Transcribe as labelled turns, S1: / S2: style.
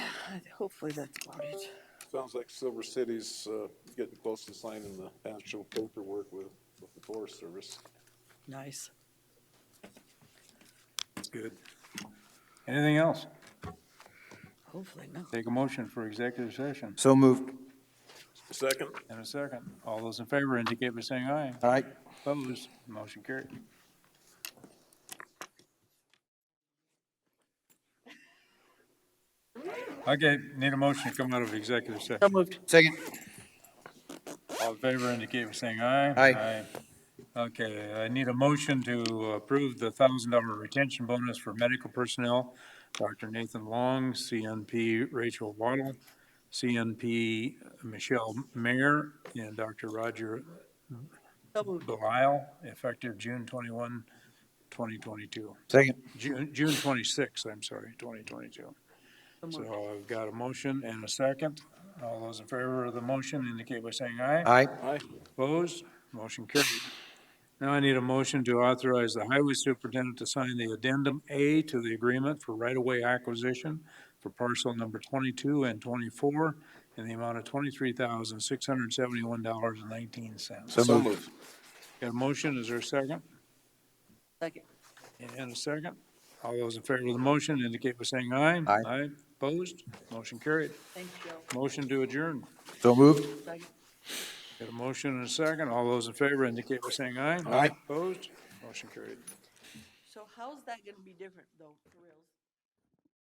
S1: Hopefully that's about it.
S2: Sounds like Silver City's, uh, getting close to signing the actual paperwork with, with the Forest Service.
S1: Nice.
S2: Good.
S3: Anything else?
S1: Hopefully not.
S3: Take a motion for executive session
S4: So moved.
S2: Second?
S3: in a second. All those in favor indicate by saying aye.
S4: All right.
S3: Opposed, motion carried. Okay, need a motion to come out of executive session.
S1: moved.
S4: Second.
S3: All in favor indicate by saying aye.
S4: Aye.
S3: Aye. Okay, I need a motion to approve the thousand dollar retention bonus for medical personnel. Dr. Nathan Long, CNP Rachel Waddle, CNP Michelle Mayer, and Dr. Roger
S1: So moved.
S3: Belisle, effective June 21, 2022.
S4: Second.
S3: June, June 26, I'm sorry, 2022.
S1: So moved.
S3: So I've got a motion and a second. All those in favor of the motion indicate by saying aye.
S4: All right.
S2: Aye.
S3: Opposed? Motion carried. Now I need a motion to authorize the highway superintendent to sign the addendum A to the agreement for right-of-way acquisition for parcel number twenty-two and twenty-four in the amount of twenty-three thousand, six hundred and seventy-one dollars and nineteen cents.
S4: So moved.
S3: Got a motion, is there a second?
S1: Second.
S3: And a second. All those in favor of the motion indicate by saying aye.
S4: Aye.
S3: Aye, opposed? Motion carried.
S1: Thank you.
S3: Motion to adjourn.
S4: So moved.
S1: Second.
S3: Got a motion and a second. All those in favor indicate by saying aye.
S4: Aye.
S3: Opposed? Motion carried.
S1: So how's that gonna be different though, for reals?